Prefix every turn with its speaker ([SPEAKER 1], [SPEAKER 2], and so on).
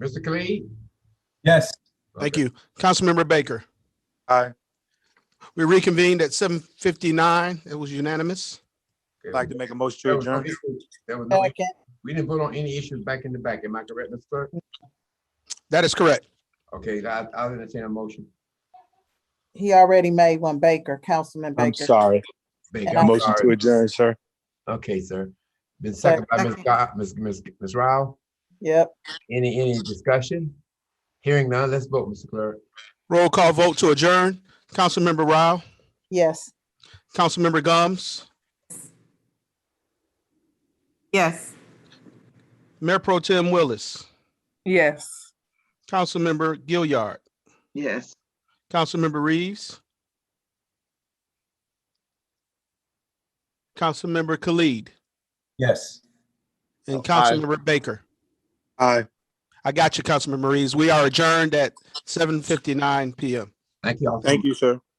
[SPEAKER 1] Mr. Khalid?
[SPEAKER 2] Yes.
[SPEAKER 3] Thank
[SPEAKER 1] Okay.
[SPEAKER 3] you. Councilmember Baker.
[SPEAKER 4] Aye.
[SPEAKER 3] We reconvened at seven fifty-nine. It was unanimous.
[SPEAKER 4] I'd
[SPEAKER 1] Okay.
[SPEAKER 4] like to make a motion
[SPEAKER 1] There
[SPEAKER 4] to
[SPEAKER 1] was no
[SPEAKER 4] adjourn.
[SPEAKER 1] issues. There was no,
[SPEAKER 5] Second,
[SPEAKER 1] we didn't vote on any issues back in the back. Am I correct, Mr. Clerk?
[SPEAKER 3] That is correct.
[SPEAKER 1] Okay, I, I'll entertain a motion.
[SPEAKER 5] he already made one, Baker, Councilman
[SPEAKER 4] I'm
[SPEAKER 5] Baker.
[SPEAKER 4] sorry.
[SPEAKER 1] Baker, I'm
[SPEAKER 4] Motion to
[SPEAKER 1] sorry.
[SPEAKER 4] adjourn, sir.
[SPEAKER 1] Okay, sir. Been seconded by Ms. Scott, Ms. Ms. Ms. Rao.
[SPEAKER 5] Yep,
[SPEAKER 1] Any, any discussion? Hearing none, let's vote, Mr. Clerk.
[SPEAKER 3] Roll call vote to adjourn. Councilmember Rao,
[SPEAKER 5] yes.
[SPEAKER 3] Councilmember Gums,
[SPEAKER 6] Yes.
[SPEAKER 3] Mayor Pro Tim Willis,
[SPEAKER 6] Yes.
[SPEAKER 3] Councilmember Gilliard,
[SPEAKER 6] Yes.
[SPEAKER 3] Councilmember Reeves, Councilmember Khalid,
[SPEAKER 2] Yes.
[SPEAKER 3] and
[SPEAKER 4] Aye.
[SPEAKER 3] Councilmember Baker.
[SPEAKER 4] Aye.
[SPEAKER 3] I got you, Councilmember Reeves. We are adjourned at seven fifty-nine PM.
[SPEAKER 1] Thank you all. so
[SPEAKER 4] Thank you, sir.